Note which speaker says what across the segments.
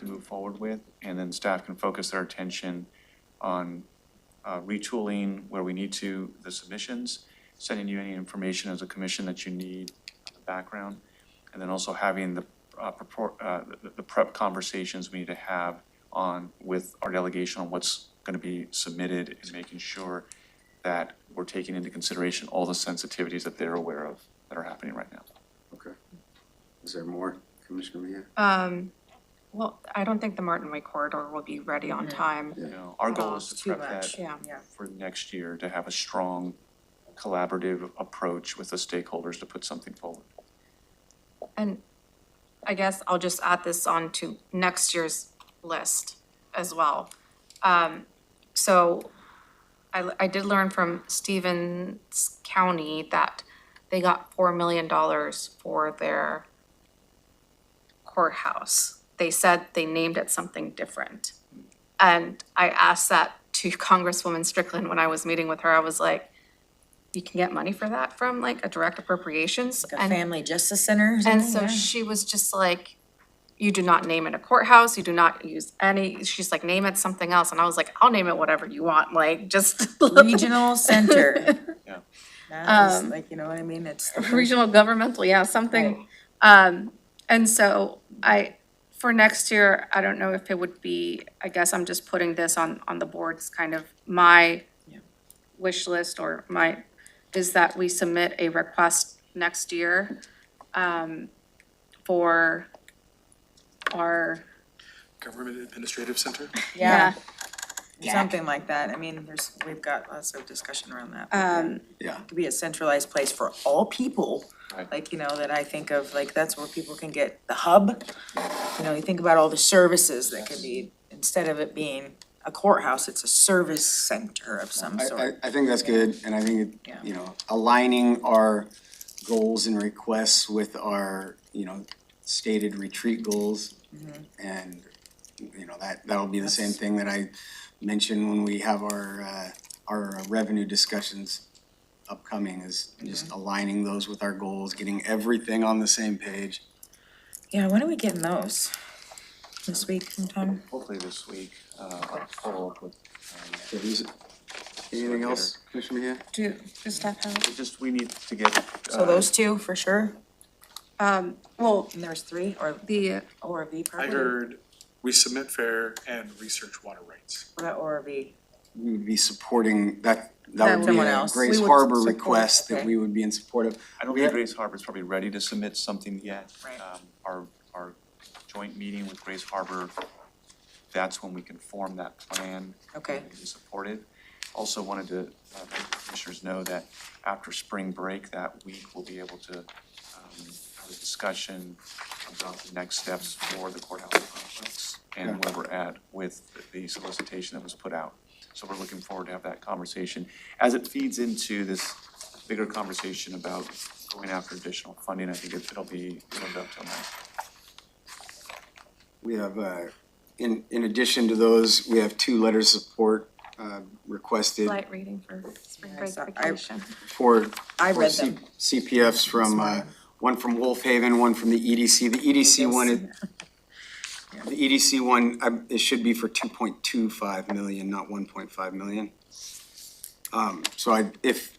Speaker 1: move forward with, and then staff can focus their attention on uh, retooling where we need to, the submissions, sending you any information as a commission that you need, the background, and then also having the, uh, purport, uh, the- the prep conversations we need to have on, with our delegation on what's gonna be submitted and making sure that we're taking into consideration all the sensitivities that they're aware of that are happening right now.
Speaker 2: Okay. Is there more, Commissioner Mejia?
Speaker 3: Uh,
Speaker 4: Um, well, I don't think the Martin Way corridor will be ready on time.
Speaker 1: You know, our goal is to
Speaker 3: Too
Speaker 1: prep
Speaker 3: much,
Speaker 1: that
Speaker 4: Yeah.
Speaker 3: yeah.
Speaker 1: for next year, to have a strong collaborative approach with the stakeholders to put something forward.
Speaker 4: And I guess I'll just add this on to next year's list as well. Um, so I, I did learn from Stevens County that they got four million dollars for their courthouse. They said they named it something different. And I asked that to Congresswoman Strickland when I was meeting with her. I was like, you can get money for that from like a direct appropriations?
Speaker 3: The
Speaker 4: And
Speaker 3: Family Justice Center. or
Speaker 4: and
Speaker 3: something,
Speaker 4: so
Speaker 3: yeah.
Speaker 4: she was just like, you do not name it a courthouse, you do not use any, she's like, name it something else. And I was like, I'll name it whatever you want, like, just
Speaker 3: Regional Center.
Speaker 1: Yeah.
Speaker 3: That is
Speaker 4: Um,
Speaker 3: like, you know what I mean? It's.
Speaker 4: regional governmental, yeah, something. Um, and so I, for next year, I don't know if it would be, I guess I'm just putting this on, on the board's kind of my
Speaker 3: Yeah.
Speaker 4: wish list or my, is that we submit a request next year, um, for our,
Speaker 5: Government Administrative Center?
Speaker 4: yeah,
Speaker 3: Yeah, something like that. I mean, there's, we've got lots of discussion around that.
Speaker 4: Um,
Speaker 2: Yeah.
Speaker 3: It Could be a centralized place for all people.
Speaker 1: Right.
Speaker 3: Like, you know, that I think of, like, that's where people can get the hub. You know, you think about all the services that could be, instead of it being a courthouse, it's a service center of some
Speaker 6: I, I,
Speaker 3: sort.
Speaker 6: I think that's good, and I think, it-
Speaker 3: Yeah.
Speaker 6: you know, aligning our goals and requests with our, you know, stated retreat goals. And, you know, that, that'll be the same
Speaker 3: Mm-hmm. That's-
Speaker 6: thing that I mentioned when we have our, uh, our revenue discussions upcoming is just
Speaker 3: Mm-hmm.
Speaker 6: aligning those with our goals, getting everything on the same page.
Speaker 3: Yeah, when are we getting those? This week sometime?
Speaker 1: Hopefully this week, uh, I'll follow up with, um,
Speaker 6: So who's- Anything else, Commissioner Mejia?
Speaker 4: do, does staff have?
Speaker 1: it's just, we need to get.
Speaker 3: So
Speaker 1: uh,
Speaker 3: those two for sure?
Speaker 4: Um, well,
Speaker 3: And there's three or,
Speaker 4: the,
Speaker 3: or V
Speaker 5: I
Speaker 3: probably?
Speaker 5: heard we submit fair and research water rights.
Speaker 3: Or that Or V.
Speaker 6: we would be supporting, that,
Speaker 3: That
Speaker 6: that would be
Speaker 3: someone
Speaker 6: a
Speaker 3: else.
Speaker 6: Grace
Speaker 3: We would
Speaker 6: Harbor
Speaker 3: support,
Speaker 6: request that
Speaker 3: okay.
Speaker 6: we would be in support of.
Speaker 1: I don't
Speaker 6: We
Speaker 1: think
Speaker 6: have-
Speaker 1: Grace Harbor's probably ready to submit something yet.
Speaker 3: Right.
Speaker 1: Um, Our, our joint meeting with Grace Harbor, that's when we can form that plan.
Speaker 3: Okay.
Speaker 1: and Support it. Also wanted to uh, let the commissioners know that after spring break, that week, we'll be able to um, have a discussion about the next steps for the courthouse complex and where we're at with the solicitation that was put out. So we're looking forward to have that conversation as it feeds into this bigger conversation about going after additional funding. I think it- it'll be, it'll up till next.
Speaker 6: We have, uh, in, in addition to those, we have two letters of support, uh, requested
Speaker 4: light reading for spring
Speaker 3: Yeah, I
Speaker 4: break
Speaker 3: saw- I-
Speaker 4: vacation.
Speaker 6: for.
Speaker 3: I
Speaker 6: for
Speaker 3: read
Speaker 6: C-
Speaker 3: them.
Speaker 6: CPFs from, uh, one from Wolf Haven, one from the EDC. The EDC one, is- the EDC one, um, it should be for two point two five million, not one point five million. Um, so I, if,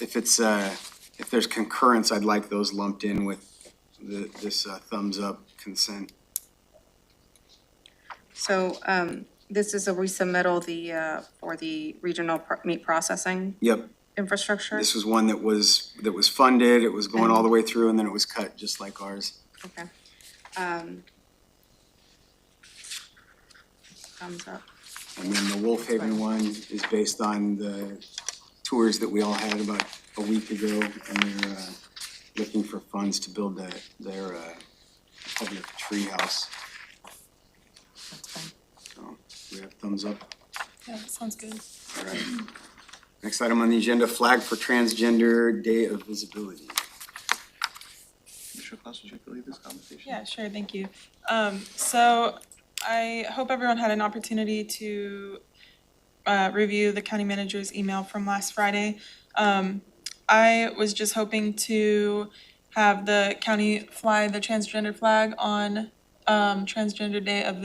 Speaker 6: if it's, uh, if there's concurrence, I'd like those lumped in with the, this uh, thumbs up consent.
Speaker 4: So, um, this is a resubmittal, the, uh, for the regional pro- meat processing
Speaker 6: Yep,
Speaker 4: infrastructure?
Speaker 6: This was one that was, that was funded, it was going all the way through, and then it was cut, just like ours.
Speaker 4: Okay. Um. Thumbs up.
Speaker 6: And then the Wolf Haven one is based on the tours that we all had about a week ago, and they're, uh, looking for funds to build the, their, uh, public treehouse. So, we have thumbs up.
Speaker 4: Yeah, that sounds good.
Speaker 6: All right. Next item on the agenda, flag for transgender day of visibility.
Speaker 1: Commissioner Klaus, would you like to lead this conversation?
Speaker 7: Yeah, sure, thank you. Um, so I hope everyone had an opportunity to uh, review the county manager's email from last Friday. Um, I was just hoping to have the county fly the transgender flag on um, Transgender Day of